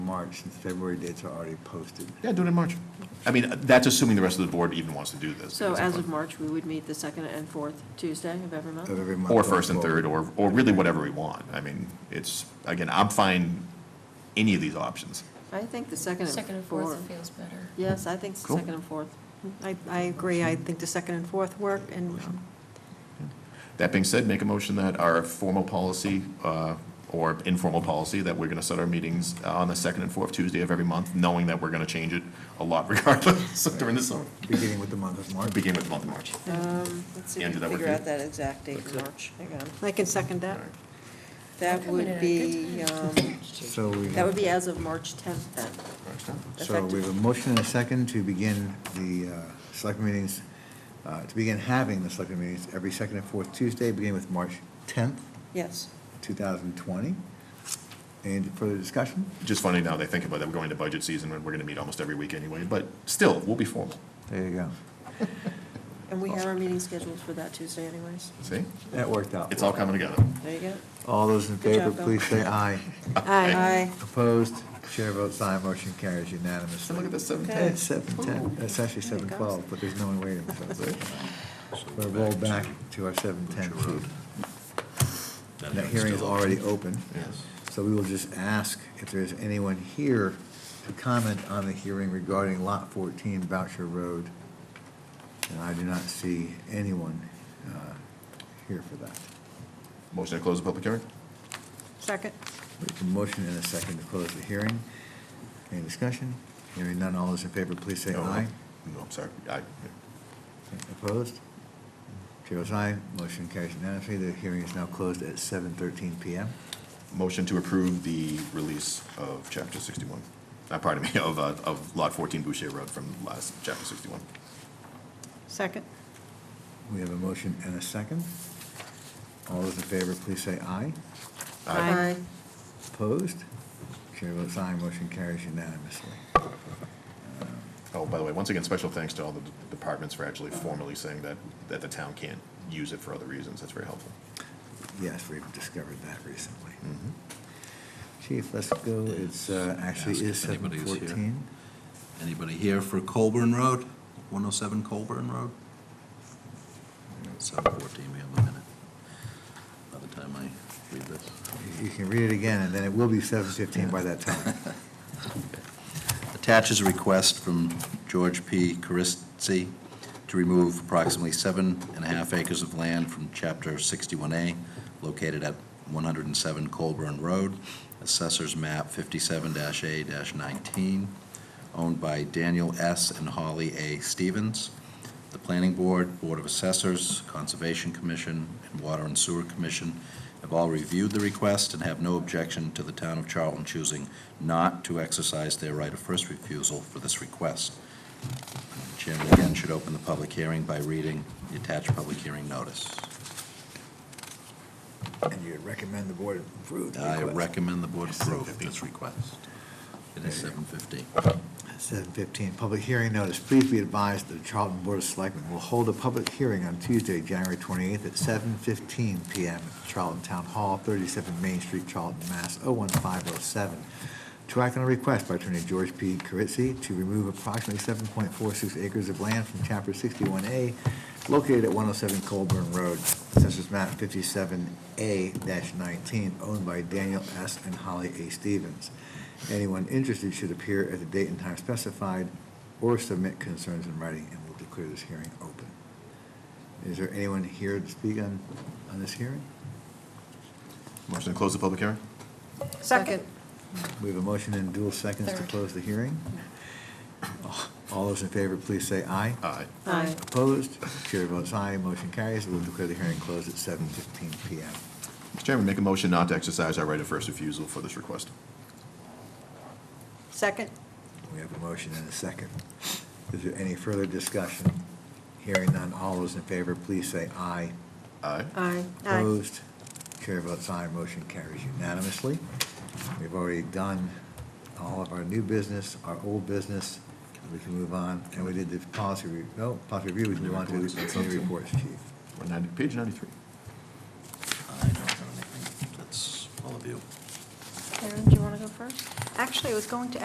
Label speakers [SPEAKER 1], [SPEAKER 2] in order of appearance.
[SPEAKER 1] March, since February dates are already posted.
[SPEAKER 2] Yeah, do it in March. I mean, that's assuming the rest of the board even wants to do this.
[SPEAKER 3] So as of March, we would meet the second and fourth Tuesday of every month?
[SPEAKER 1] of every month
[SPEAKER 2] Or
[SPEAKER 1] going
[SPEAKER 2] first and
[SPEAKER 1] forward.
[SPEAKER 2] third, or, or really whatever we want. I mean, it's, again, I'm fine any of these options.
[SPEAKER 3] I think the second
[SPEAKER 4] Second
[SPEAKER 3] and
[SPEAKER 4] and fourth
[SPEAKER 3] fourth.
[SPEAKER 4] feels better.
[SPEAKER 3] Yes, I think it's the
[SPEAKER 2] Cool.
[SPEAKER 3] second and fourth.
[SPEAKER 5] I, I agree, I think the second and fourth work, and um,
[SPEAKER 2] That being said, make a motion that our formal policy, uh, or informal policy, that we're going to set our meetings on the second and fourth Tuesday of every month, knowing that we're going to change it a lot regardless during the summer,
[SPEAKER 1] Beginning with the month of March.
[SPEAKER 2] beginning with the month of March.
[SPEAKER 3] Um, Let's see, if we
[SPEAKER 2] Andrew, that work
[SPEAKER 3] can figure
[SPEAKER 2] for you?
[SPEAKER 3] out that exact date in March. Hang on.
[SPEAKER 5] I can second that.
[SPEAKER 3] That would
[SPEAKER 4] coming in at a
[SPEAKER 3] be,
[SPEAKER 4] good
[SPEAKER 3] um,
[SPEAKER 1] So we,
[SPEAKER 3] that would be as of March 10th then.
[SPEAKER 1] so we have a motion and a second to begin the uh, select meetings, uh, to begin having the select meetings every second and fourth Tuesday, beginning with March 10th,
[SPEAKER 3] Yes.
[SPEAKER 1] 2020. Any further discussion?
[SPEAKER 2] Just funny now they think about that, we're going to budget season, and we're going to meet almost every week anyway, but still, we'll be formal,
[SPEAKER 1] There you go.
[SPEAKER 3] And we have our meeting scheduled for that Tuesday anyways.
[SPEAKER 2] see?
[SPEAKER 1] That worked out.
[SPEAKER 2] It's all coming together.
[SPEAKER 3] There you go.
[SPEAKER 1] All those in
[SPEAKER 3] Good
[SPEAKER 1] favor,
[SPEAKER 3] job, Bill.
[SPEAKER 1] please say aye.
[SPEAKER 3] Aye.
[SPEAKER 1] Opposed? Chair votes aye, motion carries unanimously.
[SPEAKER 2] Look at this, seven
[SPEAKER 1] Hey,
[SPEAKER 2] ten.
[SPEAKER 1] It's seven ten, it's actually seven twelve, but there's no one waiting, so we're rolled back to our seven ten food. That hearing is already open,
[SPEAKER 2] Yes.
[SPEAKER 1] so we will just ask if there's anyone here to comment on the hearing regarding lot fourteen Boucher Road. And I do not see anyone, uh, here for that.
[SPEAKER 2] Motion to close the public hearing?
[SPEAKER 5] Second?
[SPEAKER 1] We have a motion and a second to close the hearing. Any discussion? Hearing none, all those in favor, please say
[SPEAKER 2] No,
[SPEAKER 1] aye.
[SPEAKER 2] No, I'm sorry, aye.
[SPEAKER 1] Opposed? Chair votes aye, motion carries unanimously. The hearing is now closed at seven thirteen PM.
[SPEAKER 2] Motion to approve the release of chapter sixty-one, uh, pardon me, of, uh, of lot fourteen Boucher Road from last, chapter sixty-one.
[SPEAKER 5] Second?
[SPEAKER 1] We have a motion and a second. All those in favor, please say aye.
[SPEAKER 3] Aye.
[SPEAKER 1] Opposed? Chair votes aye, motion carries unanimously.
[SPEAKER 2] Oh, by the way, once again, special thanks to all the d- departments for actually formally saying that, that the town can't use it for other reasons, that's very helpful.
[SPEAKER 1] Yes, we've discovered that recently.
[SPEAKER 2] Hmm. Mm-hmm.
[SPEAKER 1] Chief, let's go. It's, uh, actually
[SPEAKER 6] Ask
[SPEAKER 1] is
[SPEAKER 6] if
[SPEAKER 1] seven
[SPEAKER 6] anybody is here.
[SPEAKER 1] fourteen.
[SPEAKER 6] Anybody here for Colburn Road, 107 Colburn Road? 714, we have a minute. By the time I read this.
[SPEAKER 1] You can read it again, and then it will be seven fifteen by that time.
[SPEAKER 6] Attaches a request from George P. Carisci to remove approximately seven and a half acres of land from Chapter 61A, located at 107 Colburn Road, Assessor's Map 57-A-19, owned by Daniel S. and Holly A. Stevens. The Planning Board, Board of Assessors, Conservation Commission, and Water and Sewer Commission have all reviewed the request and have no objection to the town of Charlton choosing not to exercise their right of first refusal for this request. Chairman again should open the public hearing by reading the attached public hearing notice.
[SPEAKER 1] And you recommend the board approve the
[SPEAKER 6] I
[SPEAKER 1] request?
[SPEAKER 6] recommend the board approve this request. It is seven fifteen.
[SPEAKER 1] Seven fifteen, public hearing notice. Please be advised that the Charlton Board of Selectmen will hold a public hearing on Tuesday, January twenty-eighth at seven fifteen PM at the Charlton Town Hall, thirty-seven Main Street, Charlton, Mass. 01507, To act on a request by Attorney George P. Caritzi to remove approximately seven point four six acres of land from chapter sixty-one A located at one oh seven Colburn Road, Census map fifty-seven A nineteen, owned by Daniel S. and Holly A. Stevens. Anyone interested should appear at the date and time specified or submit concerns in writing, and we'll declare this hearing open. Is there anyone here to speak on, on this hearing?
[SPEAKER 2] Motion to close the public hearing?
[SPEAKER 3] Second.
[SPEAKER 1] We have a motion and dual seconds to
[SPEAKER 4] Third.
[SPEAKER 1] close the hearing. All those in favor, please say aye.
[SPEAKER 2] Aye.
[SPEAKER 3] Aye.
[SPEAKER 1] Opposed? Chair votes aye, motion carries. We'll declare the hearing closed at 7:15 PM.
[SPEAKER 2] Mr. Chairman, make a motion not to exercise our right of first refusal for this request.
[SPEAKER 5] Second?
[SPEAKER 1] We have a motion and a second. Is there any further discussion? Hearing none, all those in favor, please say aye.
[SPEAKER 2] Aye.
[SPEAKER 3] Aye.
[SPEAKER 1] Opposed? Chair votes aye, motion carries unanimously. We've already done all of our new business, our old business, we can move on, and we did the policy, re- no, policy review, we can move on to the committee reports, chief.
[SPEAKER 2] We're ninety, page ninety-three.
[SPEAKER 6] I don't have anything. That's all of you.
[SPEAKER 7] Karen, do you want to go first?
[SPEAKER 3] Actually, I was going to